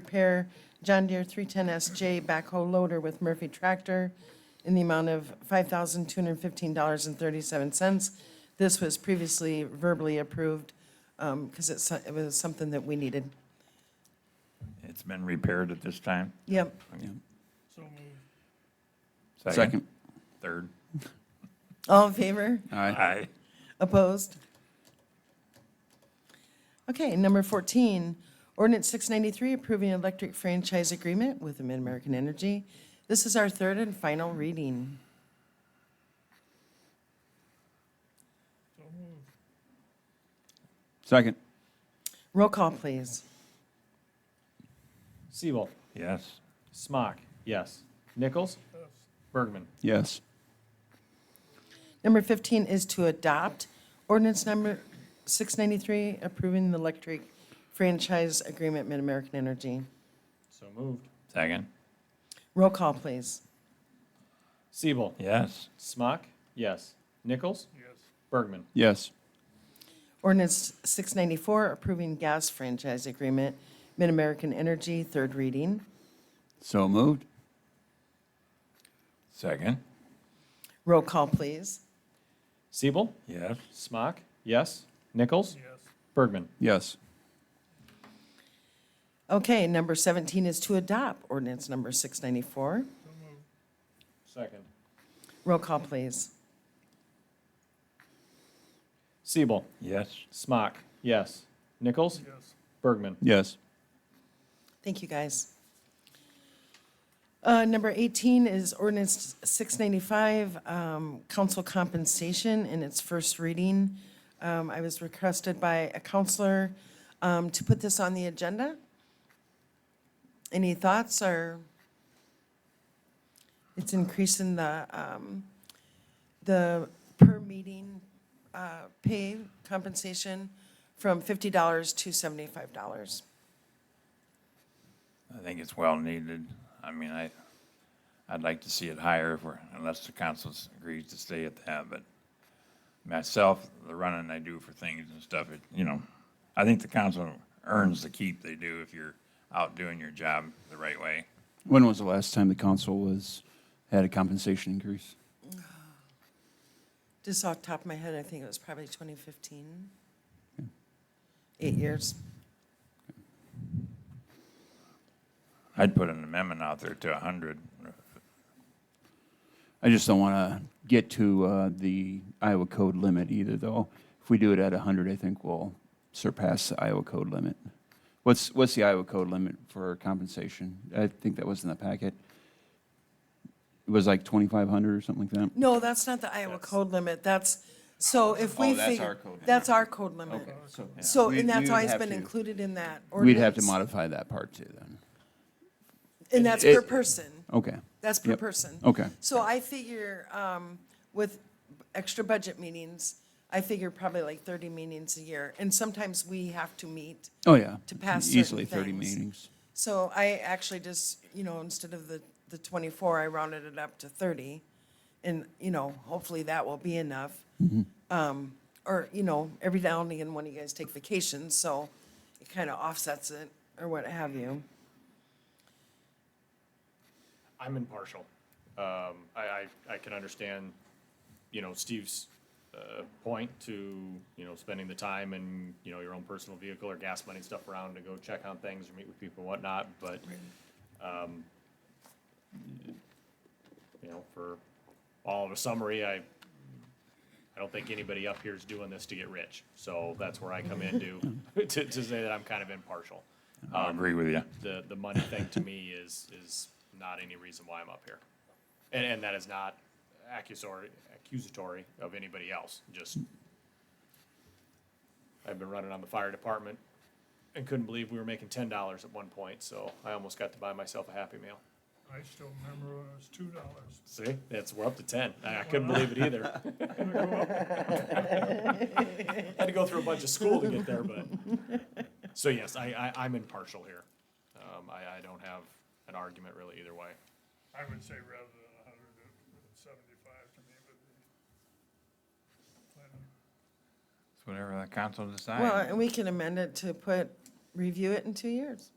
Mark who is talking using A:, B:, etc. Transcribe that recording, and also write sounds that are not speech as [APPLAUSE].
A: repair John Deere 310SJ backhoe loader with Murphy Tractor in the amount of $5,215.37. This was previously verbally approved because it's, it was something that we needed.
B: It's been repaired at this time?
A: Yep.
C: Second.
B: Third?
A: All in favor?
C: Aye.
B: Aye.
A: Opposed? Okay, number 14, ordinance 693, approving electric franchise agreement with Mid-American Energy. This is our third and final reading.
C: Second.
A: Roll call, please.
D: Siebel.
B: Yes.
D: Smock. Yes. Nichols. Bergman.
C: Yes.
A: Number 15 is to adopt ordinance number 693, approving the electric franchise agreement Mid-American Energy.
D: So moved.
B: Second?
A: Roll call, please.
D: Siebel.
B: Yes.
D: Smock. Yes. Nichols. Yes. Bergman.
C: Yes.
A: Ordinance 694, approving gas franchise agreement Mid-American Energy, third reading.
C: So moved.
B: Second?
A: Roll call, please.
D: Siebel.
B: Yes.
D: Smock. Yes. Nichols. Yes. Bergman.
C: Yes.
A: Okay, number 17 is to adopt ordinance number 694.
D: Second.
A: Roll call, please.
D: Siebel.
B: Yes.
D: Smock. Yes. Nichols. Yes. Bergman.
C: Yes.
A: Thank you, guys. Uh, Number 18 is ordinance 695, um, council compensation in its first reading. Um, I was requested by a counselor um, to put this on the agenda. Any thoughts or? It's increasing the, um, the per meeting uh, pay compensation from $50 to $75.
B: I think it's well needed. I mean, I, I'd like to see it higher if we're, unless the council agrees to stay at that, but myself, the running I do for things and stuff, it, you know, I think the council earns the keep they do if you're out doing your job the right way.
C: When was the last time the council was, had a compensation increase?
A: Just off the top of my head, I think it was probably 2015. Eight years.
B: I'd put an amendment out there to a hundred.
C: I just don't want to get to uh, the Iowa code limit either, though. If we do it at 100, I think we'll surpass the Iowa code limit. What's, what's the Iowa code limit for compensation? I think that was in the packet. It was like 2,500 or something like that?
A: No, that's not the Iowa code limit. That's, so if we
C: Oh, that's
A: figure-
C: our code limit.
A: That's our code limit. So, and that's always been included in that
C: We'd have to
A: ordinance.
C: modify that part too, then.
A: And that's
C: It-
A: per person.
C: Okay,
A: That's per
C: Yep.
A: person.
C: okay.
A: So I figure um, with extra budget meetings, I figure probably like 30 meetings a year. And sometimes we have to meet.
C: Oh, yeah.
A: To pass certain
C: Easily 30
A: things.
C: meetings.
A: So I actually just, you know, instead of the, the 24, I rounded it up to 30. And, you know, hopefully that will be enough. Um, Or, you know, every now and again, one of you guys take vacations, so it kind of offsets it or what have you.
D: I'm impartial. Um, I, I, I can understand, you know, Steve's, uh, point to, you know, spending the time and, you know, your own personal vehicle or gas money stuff around to go check on things or meet with people and whatnot, but, um, you know, for all of a summary, I, I don't think anybody up here is doing this to get rich. So that's where I come in to, [LAUGHS] to, to say that I'm kind of impartial
B: I agree with you.
D: the, the money thing to me is, is not any reason why I'm up here. And, and that is not accusatory, accusatory of anybody else, just, I've been running on the fire department and couldn't believe we were making ten dollars at one point, so I almost got to buy myself a Happy Meal.
E: I still remember when it was two dollars.
D: See, that's, we're up to ten. I I couldn't believe it either. [LAUGHS] Had to go through a bunch of school to get there, but, so yes, I, I, I'm impartial here. Um, I, I don't have an argument really either way.
E: I would say rather than a hundred, seventy-five to me would be.
B: It's whatever the council decides.
A: Well, and we can amend it to put, review it in two years.